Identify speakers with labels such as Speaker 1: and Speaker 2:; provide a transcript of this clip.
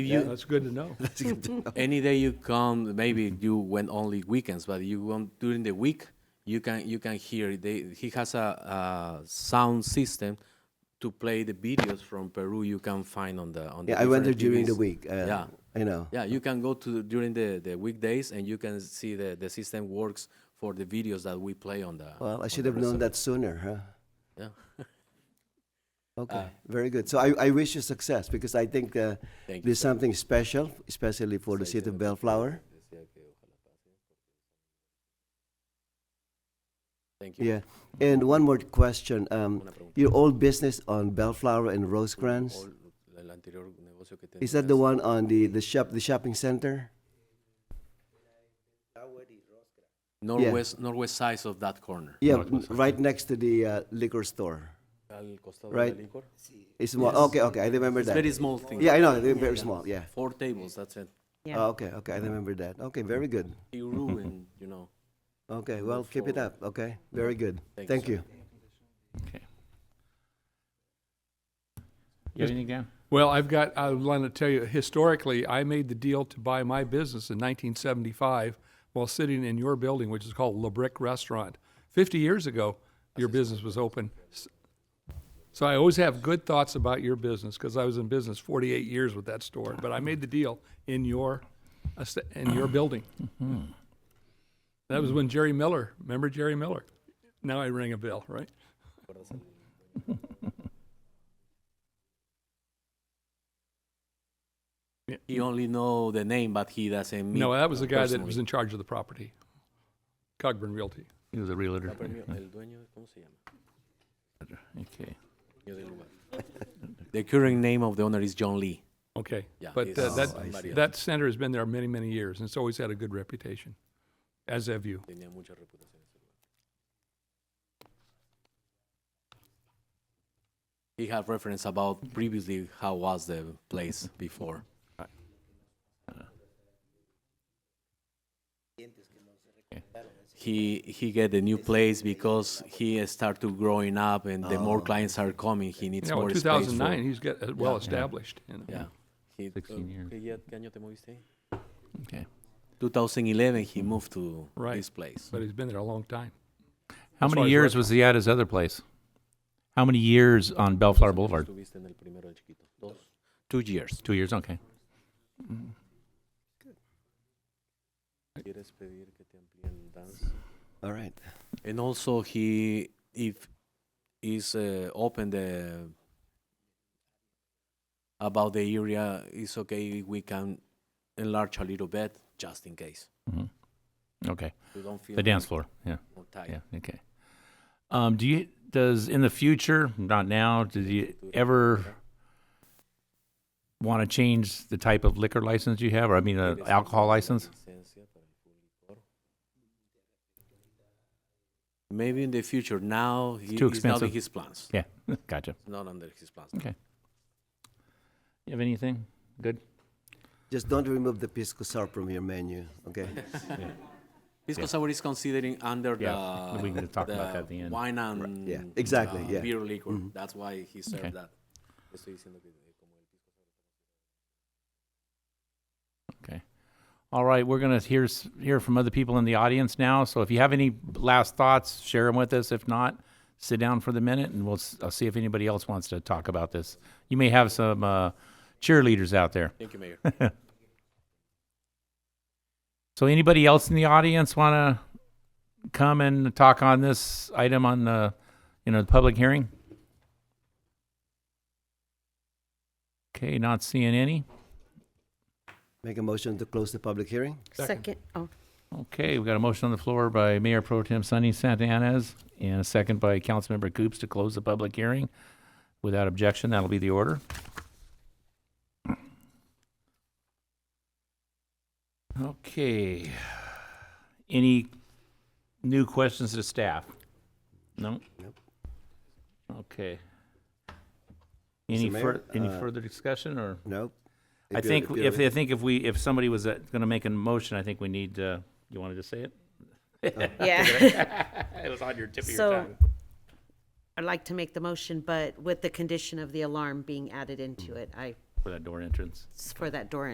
Speaker 1: You,
Speaker 2: That's good to know.
Speaker 1: any day you come, maybe you went only weekends, but you went during the week. You can you can hear. They, he has a, a sound system to play the videos from Peru. You can find on the on. The
Speaker 3: Yeah, I went there during
Speaker 1: different
Speaker 3: the
Speaker 1: TVs.
Speaker 3: week. Uh,
Speaker 1: Yeah.
Speaker 3: You know.
Speaker 1: Yeah, you can go to during the, the weekdays and you can see the, the system works for the videos that we play on the.
Speaker 3: Well, I
Speaker 1: on
Speaker 3: should
Speaker 1: the
Speaker 3: have known
Speaker 1: resort.
Speaker 3: that sooner, huh?
Speaker 1: Yeah. Uh.
Speaker 3: Okay, very good. So I, I wish you success because I think uh,
Speaker 1: Thank you
Speaker 3: there's something special, especially for the city of Bellflower.
Speaker 1: Thank you.
Speaker 3: Yeah. And one more question. Um,
Speaker 1: Una pregunta.
Speaker 3: your old business on Bellflower and Rosecrans,
Speaker 1: O el anterior negocio que
Speaker 3: is that
Speaker 1: tenías.
Speaker 3: the one on the, the shop, the shopping center?
Speaker 1: Northwest, northwest sides of that corner.
Speaker 3: Yeah, n- right next to the uh, liquor store.
Speaker 1: Al costado
Speaker 3: Right.
Speaker 1: del licor.
Speaker 3: It's more, okay, okay, I remember
Speaker 1: It's
Speaker 3: that.
Speaker 1: very small thing.
Speaker 3: yeah, I know, they're very small, yeah.
Speaker 1: Four tables, that's it.
Speaker 3: Oh, okay, okay, I remember that. Okay, very good.
Speaker 1: Peru and, you know.
Speaker 3: Okay, well, keep it
Speaker 1: forward.
Speaker 3: up, okay? Very good.
Speaker 1: Thank you,
Speaker 3: Thank
Speaker 1: sir.
Speaker 3: you.
Speaker 4: You have anything down?
Speaker 2: Well, I've got, I want to tell you, historically, I made the deal to buy my business in 1975 while sitting in your building, which is called La Brick Restaurant. 50 years ago, your business was open. S- So I always have good thoughts about your business because I was in business 48 years with that store, but I made the deal in your, est- in your building.
Speaker 4: Hmm.
Speaker 2: That was when Jerry Miller, remember Jerry Miller? Now I ring a bell, right?
Speaker 1: He only know the name, but he doesn't meet.
Speaker 2: No, eh. that was the guy that was
Speaker 1: personally.
Speaker 2: in charge of the property, Cogburn Realty.
Speaker 4: He was a realtor.
Speaker 1: El dueño, ¿cómo se llama?
Speaker 4: Okay.
Speaker 1: Dueño del lugar. The current name of the owner is John Lee.
Speaker 2: Okay,
Speaker 1: Yeah,
Speaker 2: but
Speaker 1: he's
Speaker 2: uh,
Speaker 1: somebody
Speaker 2: that,
Speaker 1: else.
Speaker 2: that center has been there many, many years, and it's always had a good reputation, as have you.
Speaker 1: Tenía mucha reputación. ese lugar. He had reference about previously how was the place before. He he get the new place because he start to growing up and the
Speaker 4: Ah.
Speaker 1: more clients are coming, he needs
Speaker 2: You know,
Speaker 1: more
Speaker 2: in
Speaker 1: space. for-
Speaker 2: 2009, he's got, uh, well established. you know.
Speaker 1: Yeah. He-
Speaker 4: 16 years.
Speaker 1: ¿Qué día- qué año te moviste?
Speaker 4: Okay.
Speaker 1: 2011, he moved to
Speaker 2: Right.
Speaker 1: this place.
Speaker 2: But he's been there a long time. As
Speaker 4: How
Speaker 2: far
Speaker 4: many
Speaker 2: as
Speaker 4: years
Speaker 2: restaurant-
Speaker 4: was he at his other place? How many years on Bellflower Boulevard?
Speaker 1: Estuviste en el primero del chiquito. Dos. Two years.
Speaker 4: Two years. Okay. Mm-hmm.
Speaker 1: ¿Quieres pedir que te amplíen dance?
Speaker 3: All right.
Speaker 1: And also he if is uh, open the about the area it's okay we can enlarge a little bit just in case.
Speaker 4: hmm Okay.
Speaker 1: You don't feel
Speaker 4: The dance floor. Yeah.
Speaker 1: more tight.
Speaker 4: Yeah. Okay. Um, do you does in the future, not now, do you ever want to change the type of liquor license you have, or I mean, uh, alcohol license?
Speaker 1: Maybe in the future. Now he,
Speaker 4: too
Speaker 1: it's not in
Speaker 4: expensive.
Speaker 1: his plans.
Speaker 4: Yeah. gotcha.
Speaker 1: Not under his plans.
Speaker 4: You have anything? Good.
Speaker 3: Just don't remove the pisco sour from your menu, okay?
Speaker 1: Pisco sour is considering under
Speaker 4: Yeah,
Speaker 1: the
Speaker 4: we can talk about
Speaker 1: the
Speaker 4: that at the end.
Speaker 1: Wine and
Speaker 3: yeah, exactly,
Speaker 1: uh,
Speaker 3: yeah. Mm-hmm.
Speaker 1: beer liquor. That's why he served
Speaker 4: Okay.
Speaker 1: that. Estoy diciendo que eh, como el pisco sour.
Speaker 4: All right, we're going to hear s- hear from other people in the audience now. So if you have any last thoughts, share them with us. If not, sit down for the minute, and we'll s- I'll see if anybody else wants to talk about this. You may have some uh, cheerleaders out there.
Speaker 1: Thank you, Mayor.
Speaker 4: So anybody else in the audience want to come and talk on this item on the you know the public hearing? Okay, not seeing any.
Speaker 3: Make a motion to close the public hearing?
Speaker 5: Second, oh,
Speaker 4: Okay, we got a motion on the floor by Mayor Pro Tem Sunny Santanez and a second by Councilmember Coops to close the public hearing. Without objection, that'll be the order. Okay. Any new questions to staff? No?
Speaker 3: Nope.
Speaker 4: Okay. Any
Speaker 3: Mr.
Speaker 4: fur,
Speaker 3: Mayor,
Speaker 4: any
Speaker 3: uh,
Speaker 4: further discussion or?
Speaker 3: Nope.
Speaker 4: I
Speaker 3: you're-
Speaker 4: think
Speaker 3: you're-
Speaker 4: if, I think if we, if somebody was going to make a motion, I think we need, uh, you wanted to say it?
Speaker 5: yeah.
Speaker 4: It was on your tip
Speaker 5: So I'd like to make the motion, but with the condition of the alarm being added into it, I
Speaker 6: for that door entrance.
Speaker 4: It's for that door